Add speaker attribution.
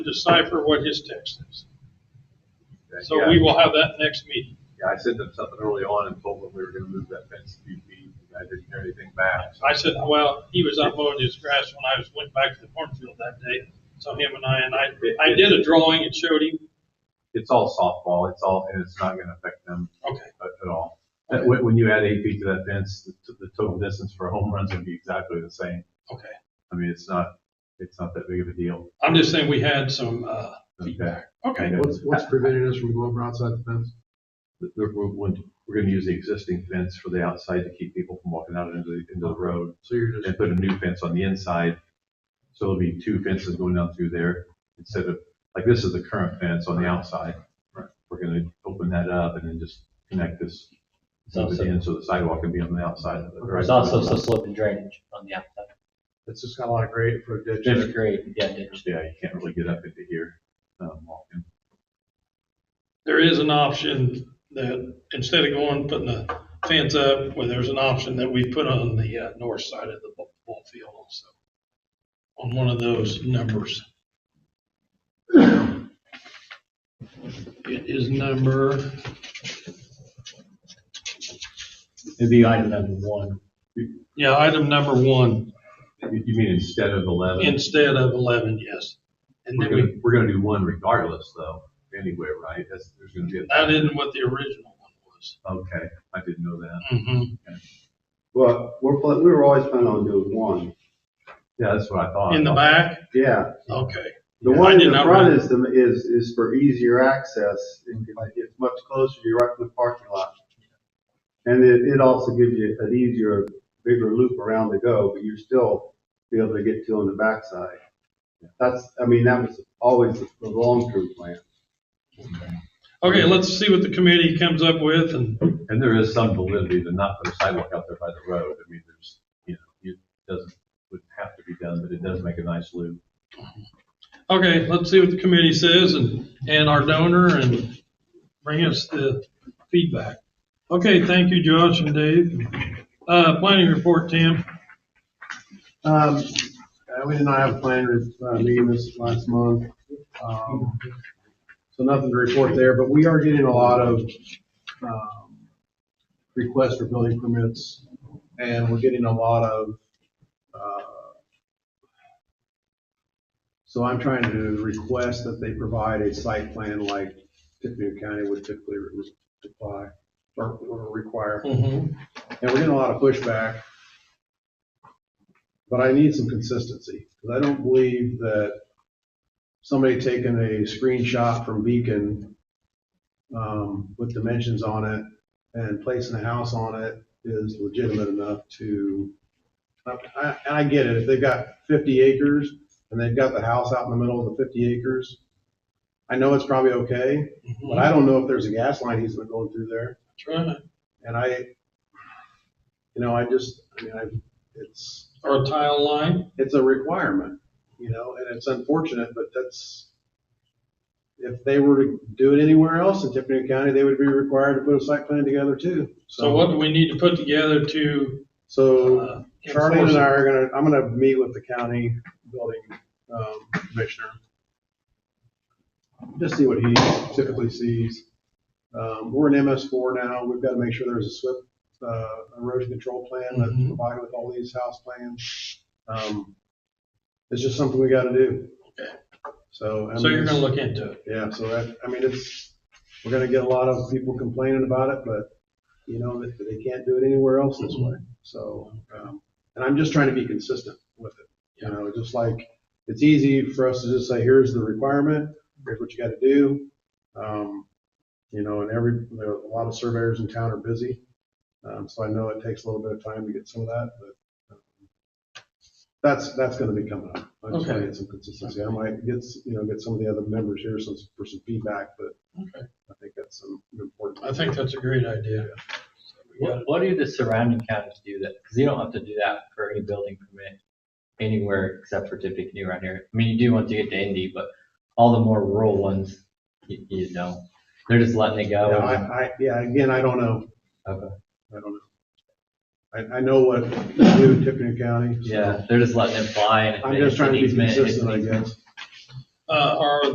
Speaker 1: decipher what his text is. So
Speaker 2: Yeah.
Speaker 1: we will have that next meeting.
Speaker 2: Yeah, I sent them something early on and told them we were gonna move that fence a few feet, and I didn't hear anything back.
Speaker 1: I said, well, he was out mowing his grass when I was, went back to the cornfield that day. So him and I, and I, I did a drawing and showed him.
Speaker 2: It's all softball, it's all, and it's not gonna affect them
Speaker 1: Okay,
Speaker 2: at, at all. That, when, when you add eight feet to that fence, the, t- the total distance for a home run's gonna be exactly the same.
Speaker 1: okay.
Speaker 2: I mean, it's not, it's not that big of a deal.
Speaker 1: I'm just saying we had some, uh, feedback. Okay,
Speaker 2: Yeah.
Speaker 3: What's, what's preventing us from going outside the fence?
Speaker 2: that We're, we're, going- we're gonna use the existing fence for the outside to keep people from walking out into the, into the road
Speaker 3: So you're just,
Speaker 2: and put a new fence on the inside. So it'll be two fences going down through there instead of, like this is the current fence on the outside. We're gonna open that up and then just connect this
Speaker 4: So-
Speaker 2: up at the end so the sidewalk can be on the outside of it.
Speaker 4: There's also some slope and drainage on the outside.
Speaker 3: it's just got a lot of grade for a ditch.
Speaker 4: Just grade, yeah, ditch.
Speaker 2: Yeah, you can't really get up into here, um, walking.
Speaker 1: there is an option that instead of going, putting the fence up, where there's an option that we put on the, uh, north side of the ball- ball field also. On one of those numbers. It is number.
Speaker 2: And the,
Speaker 4: Item number one.
Speaker 1: Yeah, item number one,
Speaker 2: you you mean instead of eleven?
Speaker 1: instead of eleven, yes. And
Speaker 2: We're
Speaker 1: then we,
Speaker 2: gonna, we're gonna do one regardless though, anyway, right? That's, there's gonna be a.
Speaker 1: that isn't what the original one was.
Speaker 2: Okay, I didn't know that.
Speaker 1: Mhm.
Speaker 5: Well, we're, pla- we were always planning on doing one,
Speaker 2: Yeah, that's what I thought.
Speaker 1: In the back,
Speaker 5: yeah.
Speaker 1: okay,
Speaker 5: The
Speaker 1: Yeah, I
Speaker 5: one
Speaker 1: did
Speaker 5: in the
Speaker 1: not
Speaker 5: front
Speaker 1: run-
Speaker 5: is, the is, is for easier access, and like, it's much closer, you're right in the parking lot. And it, it also gives you an easier, bigger loop around to go, but you're still be able to get to on the backside. That's, I mean, that was always the long-term plan.
Speaker 1: okay, let's see what the committee comes up with and,
Speaker 2: And there is some validity to not put a sidewalk out there by the road. I mean, there's, you know, it doesn't, would have to be done, but it does make a nice loop.
Speaker 1: okay, let's see what the committee says and, and our donor and bring us the feedback. Okay, thank you, Josh and Dave. Uh, planning report, Tim.
Speaker 3: Um, uh, we did not have a plan with, uh, meeting this last month. Um, So nothing to report there, but we are getting a lot of, um, requests for building permits. And we're getting a lot of, uh, so I'm trying to request that they provide a site plan like Tippecanoe County would typically re- apply or- or require.
Speaker 1: Mhm.
Speaker 3: And we're getting a lot of pushback. But I need some consistency, because I don't believe that somebody taking a screenshot from Beacon um, with dimensions on it and placing a house on it is legitimate enough to, I- I- and I get it, if they've got 50 acres and they've got the house out in the middle of the 50 acres, I know it's probably okay, but I don't know if there's a gas line easement going through there.
Speaker 1: Try it.
Speaker 3: And I, you know, I just, I mean, I, it's,
Speaker 1: Or a tile line,
Speaker 3: it's a requirement, you know, and it's unfortunate, but that's, if they were to do it anywhere else in Tiffany County, they would be required to put a site plan together too.
Speaker 1: so what do we need to put together to,
Speaker 3: So
Speaker 1: uh?
Speaker 3: Charlie and I
Speaker 1: enforce
Speaker 3: are gonna, I'm gonna meet with the county building, um, commissioner. Just see what he typically sees. Um, we're in MS four now. We've got to make sure there's a SWIP, uh, erosion control plan that's
Speaker 1: Mhm.
Speaker 3: provided with all these house plans. Um, it's just something we got to do.
Speaker 1: Okay.
Speaker 3: So. I
Speaker 1: it? So
Speaker 3: mean,
Speaker 1: you're gonna
Speaker 3: it's-
Speaker 1: look into it?
Speaker 3: Yeah, so that, I mean, it's, we're gonna get a lot of people complaining about it, but, you know, that that they can't do it anywhere else this way. So, um, and I'm just trying to be consistent with it, you know, just like, it's easy for us to just say, here's the requirement, here's what you gotta do. Um, you know, and every, there are a lot of surveyors in town are busy, um, so I know it takes a little bit of time to get some of that, but um, that's, that's gonna be coming up. I just wanna
Speaker 1: Okay.
Speaker 3: get some consistency. I might get, s- you know, get some of the other members here some, for some feedback, but
Speaker 1: Okay.
Speaker 3: I think that's some important.
Speaker 1: I think that's a great idea. We got
Speaker 4: What, what do the surrounding counties do that? Because you don't have to do that for any building permit anywhere except for Tippecanoe around here. I mean, you do once you get to Indy, but all the more rural ones, you, you know, they're just letting it
Speaker 3: Yeah,
Speaker 4: go.
Speaker 3: I, I, yeah, again, I don't know.
Speaker 4: Okay.
Speaker 3: I don't know. I, I know what they do in Tiffany County. so
Speaker 4: Yeah, they're just letting it fly. and if
Speaker 3: I'm
Speaker 4: it-
Speaker 3: just
Speaker 4: it's an
Speaker 3: trying to be
Speaker 4: easement, it's an
Speaker 3: consistent, I
Speaker 4: easement.
Speaker 3: guess.
Speaker 1: uh, are